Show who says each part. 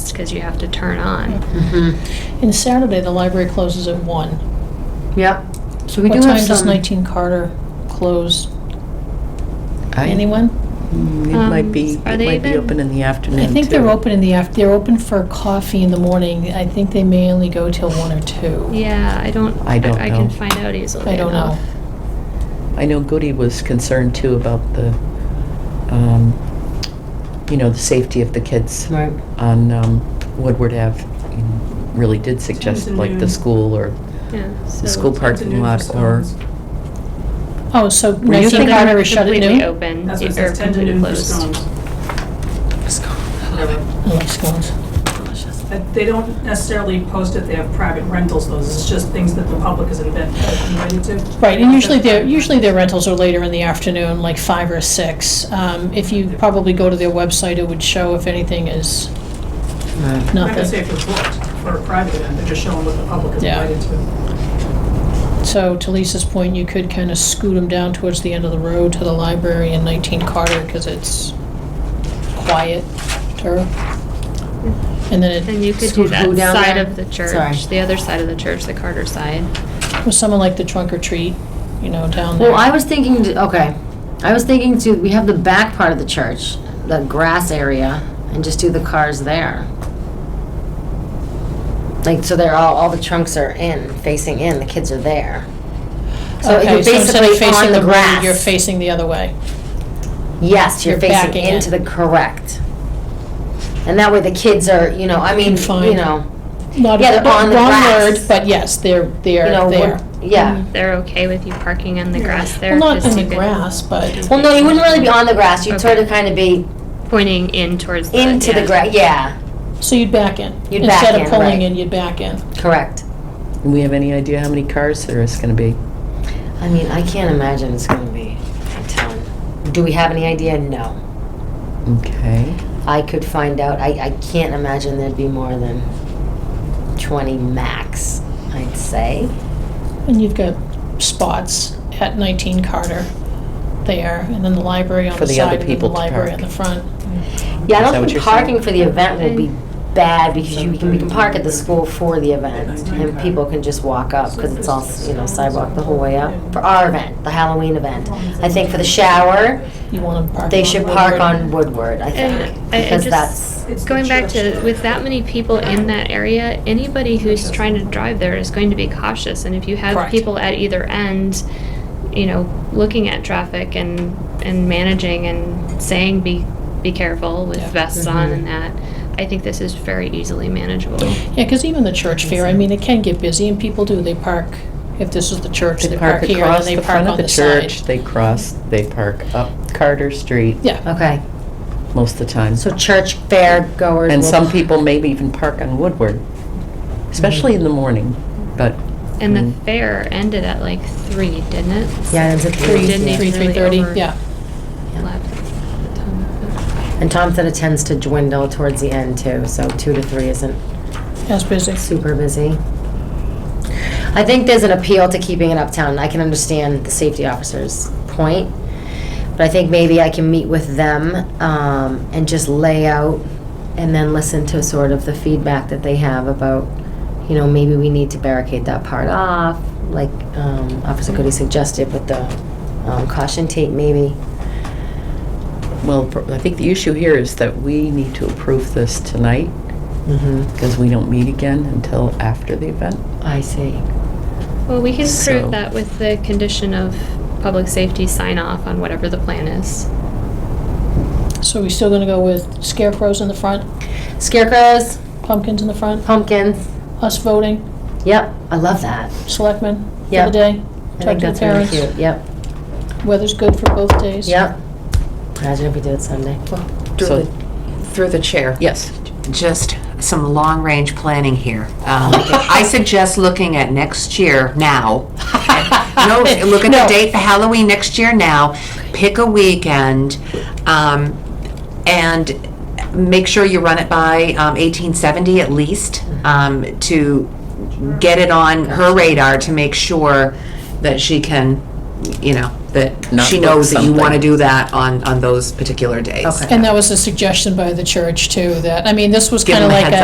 Speaker 1: because you have to turn on.
Speaker 2: Mm-hmm.
Speaker 3: Mm-hmm.
Speaker 2: And Saturday, the library closes at one.
Speaker 3: Yep. So we do
Speaker 2: What
Speaker 3: have
Speaker 2: time does
Speaker 3: some.
Speaker 2: nineteen Carter close?
Speaker 4: I-
Speaker 2: Anyone?
Speaker 4: Mm, It
Speaker 1: Um,
Speaker 4: might be,
Speaker 1: are
Speaker 4: it
Speaker 1: they
Speaker 4: might be
Speaker 1: even-
Speaker 4: open in the afternoon,
Speaker 2: I think they're
Speaker 4: too.
Speaker 2: open in the af, they're open for coffee in the morning. I think they may only go till one or two.
Speaker 1: Yeah, I don't,
Speaker 4: I don't
Speaker 1: I can
Speaker 4: know.
Speaker 1: find out easily
Speaker 2: I don't know.
Speaker 1: enough.
Speaker 4: I know Goody was concerned, too, about the, um, you know, the safety of the kids
Speaker 3: Right.
Speaker 4: on um, Woodward Ave. You Really did suggest,
Speaker 5: Times at
Speaker 4: like, the
Speaker 5: noon.
Speaker 4: school or
Speaker 1: Yeah, so.
Speaker 4: the school parking lot or...
Speaker 2: Oh, so
Speaker 4: you
Speaker 2: nineteen
Speaker 4: thinking
Speaker 2: Carter is shut at
Speaker 1: Completely
Speaker 2: noon?
Speaker 1: open,
Speaker 5: That's what it
Speaker 1: or
Speaker 5: says, 10 to
Speaker 1: completely
Speaker 5: noon for
Speaker 1: closed.
Speaker 5: scones. Whatever.
Speaker 2: Oh, I like scones.
Speaker 5: But They don't necessarily post it, they have private rentals, those, it's just things that the public is invited invited to.
Speaker 2: Right, and usually their, usually their rentals are later in the afternoon, like five or six. Um, if you probably go to their website, it would show if anything is
Speaker 4: Right.
Speaker 5: I'm not gonna
Speaker 2: nothing.
Speaker 5: say if it's booked for a private event, they're just showing what the public is
Speaker 2: Yeah.
Speaker 5: invited to.
Speaker 2: So to Lisa's point, you could kind of scoot them down towards the end of the road to the library in 19 Carter because it's quieter. And then
Speaker 1: And
Speaker 2: it
Speaker 1: you could do
Speaker 3: Scoot who
Speaker 1: that
Speaker 3: down
Speaker 1: side
Speaker 3: there?
Speaker 1: of the
Speaker 3: Sorry.
Speaker 1: church, the other side of the church, the Carter side.
Speaker 2: was someone like the trunk or treat, you know, down there.
Speaker 3: Well, I was thinking, to- okay, I was thinking to, we have the back part of the church, the grass area, and just do the cars there. Like, so they're all, all the trunks are in, facing in, the kids are there. So
Speaker 2: Okay,
Speaker 3: you're
Speaker 2: so instead of
Speaker 3: basically
Speaker 2: facing
Speaker 3: on the
Speaker 2: road,
Speaker 3: grass.
Speaker 2: You're facing the other way.
Speaker 3: Yes, you're
Speaker 2: You're
Speaker 3: facing
Speaker 2: backing
Speaker 3: into the
Speaker 2: in.
Speaker 3: correct. And that way the kids are, you know, I mean, you
Speaker 2: find-
Speaker 3: know,
Speaker 2: Not
Speaker 3: Yeah, they're on the
Speaker 2: wrong
Speaker 3: grass.
Speaker 2: word, But yes, they're,
Speaker 3: you
Speaker 2: they're
Speaker 3: know,
Speaker 2: there. Mm-hmm.
Speaker 3: we're- yeah.
Speaker 1: They're okay with you parking on the grass there?
Speaker 2: Well, not
Speaker 1: just
Speaker 2: in
Speaker 1: you
Speaker 2: the
Speaker 1: could-
Speaker 2: grass, but,
Speaker 3: Well, no, you wouldn't really be on the grass, you'd
Speaker 1: Okay.
Speaker 3: sort of kind of be
Speaker 1: Pointing in towards the.
Speaker 3: into the
Speaker 1: yeah.
Speaker 3: grass, yeah,
Speaker 2: so you'd back in.
Speaker 3: You'd back
Speaker 2: Instead
Speaker 3: in,
Speaker 2: of pulling
Speaker 3: right.
Speaker 2: in, you'd back in.
Speaker 3: correct.
Speaker 4: Do we have any idea how many cars there is going to be?
Speaker 3: I mean, I can't imagine it's gonna be a ton. Do we have any idea? No.
Speaker 4: Okay.
Speaker 3: I could find out. I, I can't imagine there'd be more than twenty max, I'd say.
Speaker 2: And you've got spots at 19 Carter there, and then the library on
Speaker 4: For
Speaker 2: the
Speaker 4: the other
Speaker 2: side, and then the
Speaker 4: people to
Speaker 2: library in
Speaker 4: park.
Speaker 2: the front.
Speaker 3: Yeah, I
Speaker 4: Is that
Speaker 3: don't
Speaker 4: what
Speaker 3: think
Speaker 4: you're
Speaker 3: parking
Speaker 4: saying?
Speaker 3: for the event will be bad because you can, we can park at the
Speaker 5: 7:30.
Speaker 3: school for the event and people can just walk up because it's all, you know, sidewalk the whole way up. For our event, the Halloween event. I think for the shower,
Speaker 2: You want to park.
Speaker 3: they
Speaker 2: on
Speaker 3: should
Speaker 2: Woodward.
Speaker 3: park on Woodward, I think,
Speaker 1: And I- I
Speaker 3: because
Speaker 1: just-
Speaker 3: that's,
Speaker 5: It's the
Speaker 1: Going back
Speaker 5: church.
Speaker 1: to, with that many people in that area, anybody who's trying to drive there is going to be cautious. And if you have
Speaker 2: Correct.
Speaker 1: people at either end, you know, looking at traffic and, and managing and saying be, be careful with
Speaker 2: Yeah.
Speaker 1: vests on and that, I think this is very easily manageable.
Speaker 2: Yeah, because even the church fair, I mean, it can get busy, and people do, they park, if this is the church, they park here, and
Speaker 4: across
Speaker 2: they
Speaker 4: the
Speaker 2: park
Speaker 4: front of
Speaker 2: on
Speaker 4: the
Speaker 2: the side.
Speaker 4: church. They cross, they park up Carter Street
Speaker 2: Yeah,
Speaker 3: okay.
Speaker 4: most of the time.
Speaker 3: So church fair goers
Speaker 4: And
Speaker 3: will-
Speaker 4: some people maybe even park on Woodward,
Speaker 2: Mm-hmm.
Speaker 4: especially in the morning, but
Speaker 1: And the
Speaker 4: Mm.
Speaker 1: fair ended at like three, didn't it?
Speaker 3: Yeah, it was at
Speaker 1: We
Speaker 3: three.
Speaker 1: didn't
Speaker 3: yeah.
Speaker 1: even
Speaker 2: three,
Speaker 1: really
Speaker 2: three-thirty,
Speaker 1: over-
Speaker 2: yeah.
Speaker 1: lap the time.
Speaker 3: And Tom said it tends to dwindle towards the end too, so two to three isn't
Speaker 2: That's busy.
Speaker 3: super busy. I think there's an appeal to keeping it uptown. I can understand the safety officer's point, but I think maybe I can meet with them um, and just lay out and then listen to sort of the feedback that they have about, you know, maybe we need to barricade that part off, like um, Officer Goody suggested with the um, caution tape, maybe.
Speaker 4: Well, pr- I think the issue here is that we need to approve this tonight
Speaker 3: hmm
Speaker 4: because we don't meet again until after the event.
Speaker 3: I see.
Speaker 1: Well, we can
Speaker 4: So-
Speaker 1: prove that with the condition of public safety sign off on whatever the plan is.
Speaker 2: So we still gonna go with scarecrows in the front,
Speaker 3: Scarecrows,
Speaker 2: pumpkins in the front,
Speaker 3: pumpkins.
Speaker 2: us voting,
Speaker 3: Yep, I love that.
Speaker 2: selectmen for
Speaker 3: Yeah.
Speaker 2: the day,
Speaker 3: I
Speaker 2: talk
Speaker 3: think
Speaker 2: to the
Speaker 3: that's really
Speaker 2: parents.
Speaker 3: cute. Yep.
Speaker 2: Weather's good for both days.
Speaker 3: Yep. Imagine if we did it Sunday.
Speaker 6: Through
Speaker 4: So-
Speaker 6: the, through the chair.
Speaker 4: Yes.
Speaker 6: Just some long-range planning here. Um, I suggest looking at next year now. No, look at the date for Halloween next year now. Pick a weekend, um, and make sure you run it by um, 1870 at least um, to get it on her radar to make sure that she can, you know, that
Speaker 4: Not
Speaker 6: she
Speaker 4: book
Speaker 6: knows that you want to
Speaker 4: something.
Speaker 6: do that on on those particular days.
Speaker 3: Okay.
Speaker 2: And that was a suggestion by the church too, that, I mean, this was
Speaker 6: Give
Speaker 2: kind of
Speaker 6: them a
Speaker 2: like
Speaker 6: heads
Speaker 2: a,